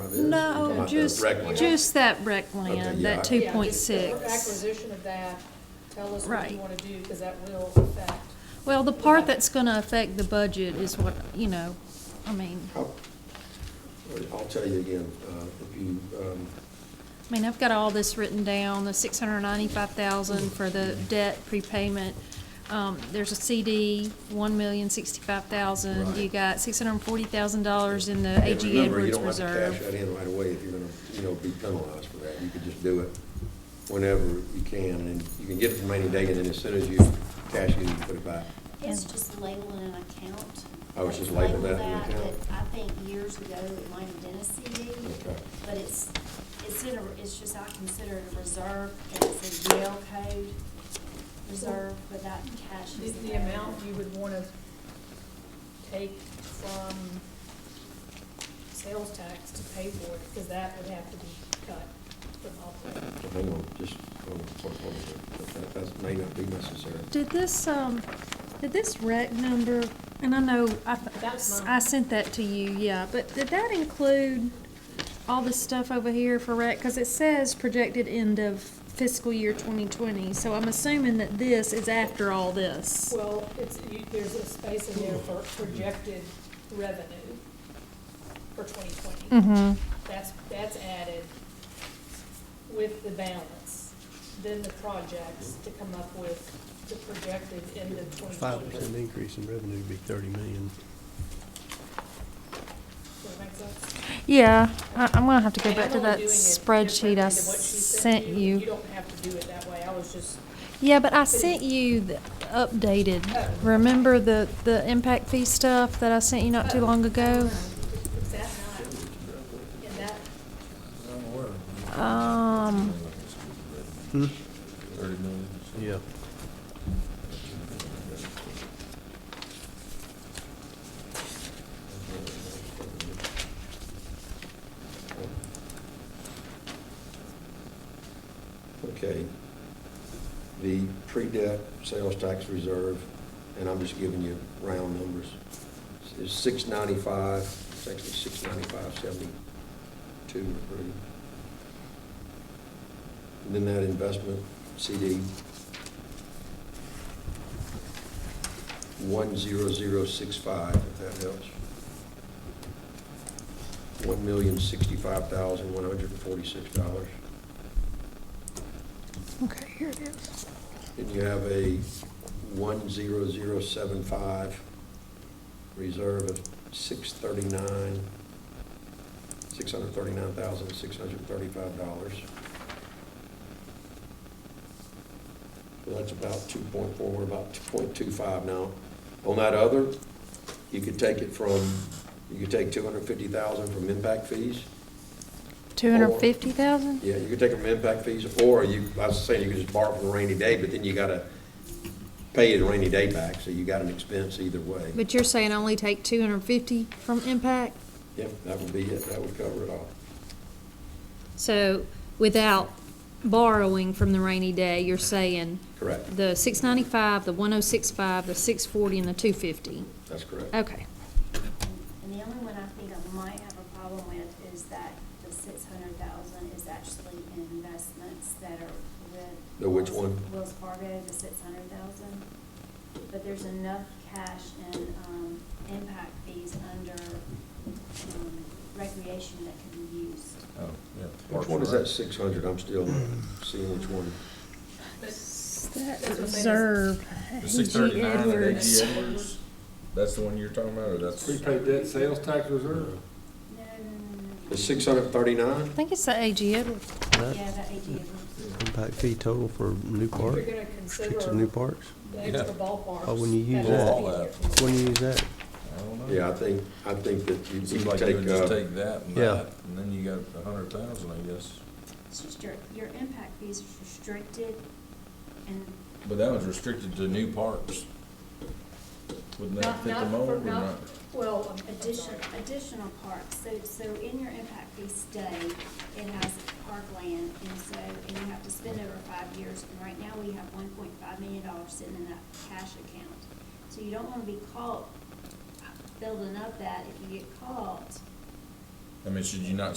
about, oh, Not the just, rec land. just that rec Okay, land, yeah, I- that two Yeah, point just the six. Acquisition of that, tell us what Right. you want to do, because that will affect. Well, the part that's gonna affect the budget is what, you know, I mean, How- I'll tell you again, uh, if you, um, I mean, I've got all this written down, the six hundred ninety-five thousand for the debt prepayment. Um, there's a CD, one million sixty-five thousand, Right. you got six hundred and forty thousand dollars in the and AG remember, you Edwards don't have to cash that Reserve. in right away if you're gonna, you know, be penalized for that. You could just do it whenever you can, and you can get it from rainy day, and then as soon as you cash it, you put it back. It's just labeling an account. Oh, it's just labeled that in an Label that, account? but I think years ago, it might have been a CD. Okay. But it's, it's in a, it's just, I consider it a reserve, and it's a Yale code reserve, but that cash The, is. the available. amount you would want to take from sales tax to pay for it, because that would have to be cut from operating. So Hang on, just, hold on, hold on, but that, that may not be necessary. Did this, um, did this rec number, and I know I, That's mine. I sent that to you, yeah, but did that include all the stuff over here for rec? Cause it says projected end of fiscal year twenty twenty, so I'm assuming that this is after all this. Well, it's, you, there's a space in there for projected revenue for twenty Mm-hmm. That's, that's added with the balance, then the projects to come up with the projected end of twenty Five percent twenty. increase in revenue would be thirty million. Does that make sense? Yeah, I, I'm gonna have to I go mean, back I'm to only that doing it spreadsheet differently I than what she sent You you. don't have to do it that way, I was just, Yeah, but I sent you the updated, Oh. remember the, the impact fee stuff that I sent you not too Oh. long ago? is that not, in that, Um, Hmm. Thirty million. Yeah. Okay. The pre-debt sales tax reserve, and I'm just giving you round numbers, is six ninety-five, it's actually six ninety-five, seventy-two or three. And then that investment CD, one zero zero six five, if that helps. One million sixty-five thousand, one hundred and forty-six dollars. okay, here it is. And you have a one zero zero seven five reserve of six thirty-nine, six hundred thirty-nine thousand, six hundred thirty-five dollars. So that's about two point four, we're about two point two five now. On that other, you could take it from, you could take two hundred fifty thousand from impact fees. Two hundred and fifty thousand? Yeah, you could take them from impact fees, or you, I was saying you could just borrow from a rainy day, but then you gotta pay the rainy day back, so you got an expense either way. But you're saying only take two hundred and fifty from impact? Yep, that would be it, that would cover it all. So without borrowing from the rainy day, you're saying Correct, the six ninety-five, the one oh six five, the six forty, and the two fifty? that's correct. Okay. And the only one I think I might have a problem with is that the six hundred thousand is actually in investments that are with. The which Wells- one? Wells Fargo, the six hundred thousand. But there's enough cash in, um, impact fees under, um, recreation that can be used. Oh, yeah. Which one is that six hundred, I'm still seeing which one. That's what they- The six thirty-nine at AG Edwards? That's the one you're talking about, or that's? Prepaid debt sales tax reserve? No, no, no, no, The six hundred thirty-nine? I think it's the AG Edwards. no. That Yeah, that AG Edwards. impact fee total for new if park, you're gonna streets and consider new parks, the extra Yeah. ballparks. Oh, when you has use to that. be All there that. from the- when you use that, I don't know. Yeah, I think, I think that you It you seems like could you would take, just uh, take that and Yeah. that, and then you got a hundred thousand, I guess. It's just your, your impact fees is restricted and But that was restricted to new parks. Wouldn't that Not, fit the not, mold for- or not? not, well, I'm- I'm um, addition, sorry. additional parks, so, so in your impact fee study, it has parkland, and so, and you have to spend over five years, and right now, we have one point five million dollars sitting in that cash account. So you don't wanna be caught building up that, if you get caught, I mean, should you not